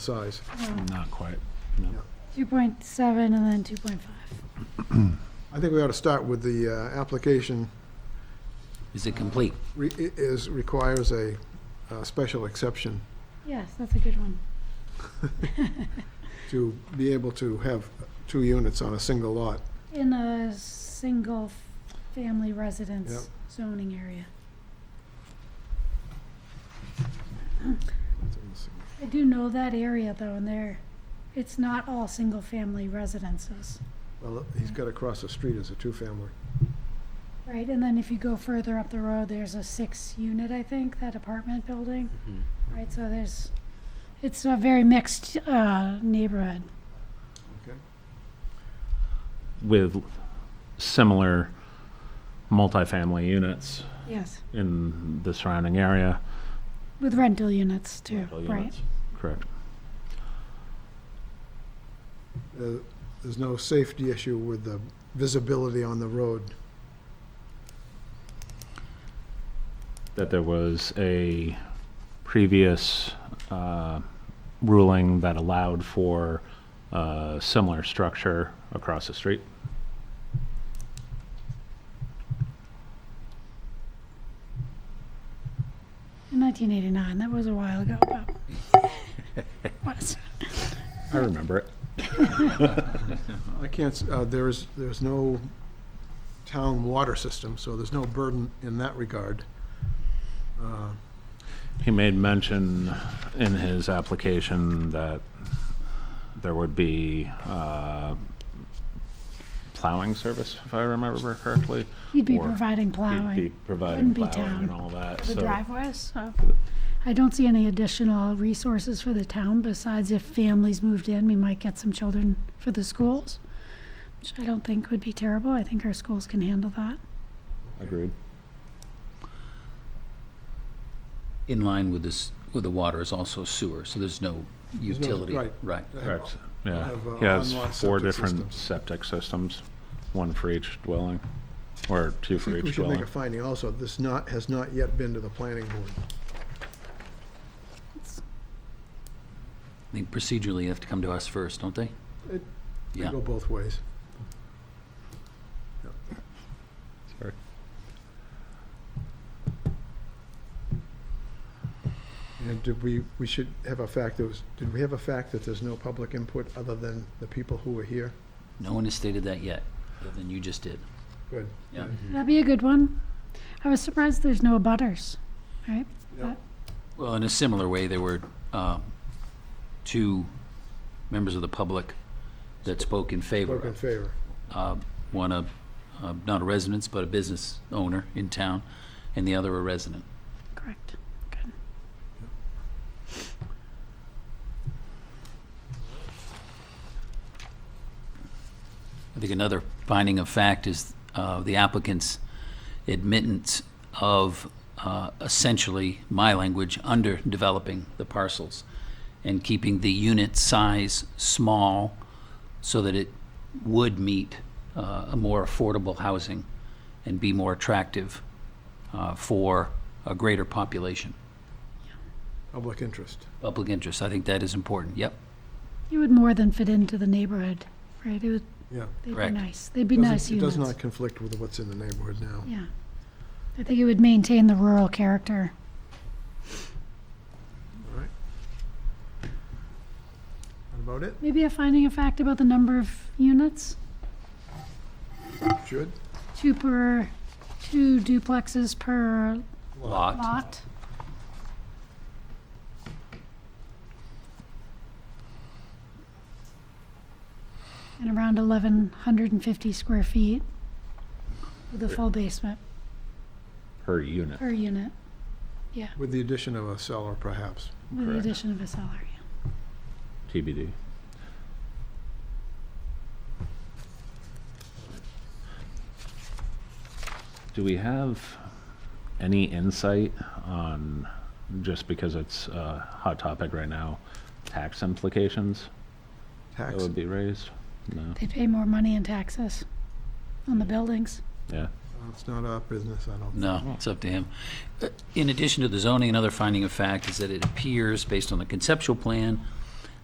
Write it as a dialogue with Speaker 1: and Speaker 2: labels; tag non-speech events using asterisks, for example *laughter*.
Speaker 1: size.
Speaker 2: Not quite.
Speaker 3: Two point seven and then two point five.
Speaker 1: I think we ought to start with the uh, application
Speaker 4: Is it complete?
Speaker 1: re- i- is, requires a uh, special exception
Speaker 3: Yes, that's a good one.
Speaker 1: to be able to have two units on a single lot.
Speaker 3: In a single f- family residence zoning area. I do know that area though, and there, it's not all single family residences.
Speaker 1: Well, he's got across the street as a two-family.
Speaker 3: Right, and then if you go further up the road, there's a six unit, I think, that apartment building.
Speaker 2: Mm-hmm.
Speaker 3: Right, so there's, it's a very mixed, uh, neighborhood.
Speaker 2: With similar multifamily units
Speaker 3: Yes.
Speaker 2: in the surrounding area.
Speaker 3: With rental units too,
Speaker 2: rental
Speaker 3: right?
Speaker 2: units. Correct.
Speaker 1: Uh, There's no safety issue with the visibility on the road.
Speaker 2: That there was a previous uh, ruling that allowed for a similar structure across the street.
Speaker 3: In nineteen eighty-nine, that was a while ago,
Speaker 2: *laughs*
Speaker 3: but. was.
Speaker 2: I remember it.
Speaker 1: I can't, s- uh, there is, there's no town water system, so there's no burden in that regard. Uh,
Speaker 2: He made mention in his application that there would be uh, plowing service, if I remember correctly.
Speaker 3: He'd be
Speaker 2: Or
Speaker 3: providing
Speaker 2: He'd be
Speaker 3: plowing
Speaker 2: providing
Speaker 3: Wouldn't be
Speaker 2: plowing
Speaker 3: town.
Speaker 2: and all that,
Speaker 3: for the
Speaker 2: so.
Speaker 3: driveways, Oh. so. I don't see any additional resources for the town besides if families moved in, we might get some children for the schools, which I don't think would be terrible. I think our schools can handle that.
Speaker 2: Agreed.
Speaker 4: In line with this, with the water is also sewer, so there's no
Speaker 1: no-
Speaker 4: utility.
Speaker 1: right.
Speaker 4: Right.
Speaker 2: Correct, yeah.
Speaker 1: have, uh,
Speaker 2: He has
Speaker 1: on-lot
Speaker 2: four
Speaker 1: septic
Speaker 2: different
Speaker 1: systems.
Speaker 2: septic systems, one for each dwelling, or two
Speaker 1: I
Speaker 2: for
Speaker 1: think we
Speaker 2: each
Speaker 1: should make
Speaker 2: dwelling.
Speaker 1: a finding also, this not, has not yet been to the planning board.
Speaker 3: It's-
Speaker 4: I think procedurally, they have to come to us first, don't they?
Speaker 1: It- They
Speaker 4: Yeah.
Speaker 1: Go both ways.
Speaker 2: Sorry.
Speaker 1: And did we, we should have a fact, that was, did we have a fact that there's no public input other than the people who were here?
Speaker 4: No one has stated that yet, other than you just did.
Speaker 1: Good.
Speaker 4: Yeah.
Speaker 1: Mm-hmm.
Speaker 3: That'd be a good one. I was surprised there's no butters, right?
Speaker 1: Yeah.
Speaker 4: Well, in a similar way, there were uh, two members of the public that spoke in favor
Speaker 1: Vote in
Speaker 4: of.
Speaker 1: favor.
Speaker 4: uh, One, a, uh, not a resident, but a business owner in town, and the other a resident.
Speaker 3: Correct. Good.
Speaker 4: I think another finding of fact is uh, the applicant's admittance of uh, essentially, my language, underdeveloping the parcels and keeping the unit size small so that it would meet uh, a more affordable housing and be more attractive uh, for a greater population.
Speaker 1: Public interest.
Speaker 4: Public interest, I think that is important, yep.
Speaker 3: It would more than fit into the neighborhood, right? It would,
Speaker 1: Yeah.
Speaker 3: they'd be
Speaker 4: Correct.
Speaker 3: nice. They'd be
Speaker 1: Doesn't-
Speaker 3: nice
Speaker 1: It
Speaker 3: units.
Speaker 1: does not conflict with what's in the neighborhood now.
Speaker 3: Yeah. I think it would maintain the rural character.
Speaker 1: All right. That about it?
Speaker 3: Maybe a finding of fact about the number of units?
Speaker 1: Should?
Speaker 3: Two per, two duplexes per
Speaker 4: Lot,
Speaker 3: lot? And around eleven hundred and fifty square feet with a full basement
Speaker 2: Per unit.
Speaker 3: per unit,
Speaker 1: With the addition of a cellar perhaps.
Speaker 3: with the
Speaker 2: Correct.
Speaker 3: addition of a cellar, yeah.
Speaker 2: TBD. Do we have any insight on, just because it's a hot topic right now, tax implications that
Speaker 1: Tax,
Speaker 2: would be raised? No,
Speaker 3: They pay more money in taxes on the buildings.
Speaker 2: yeah.
Speaker 1: it's not our business, I don't.
Speaker 4: No, it's up to him. Uh, In addition to the zoning, another finding of fact is that it appears, based on the conceptual plan,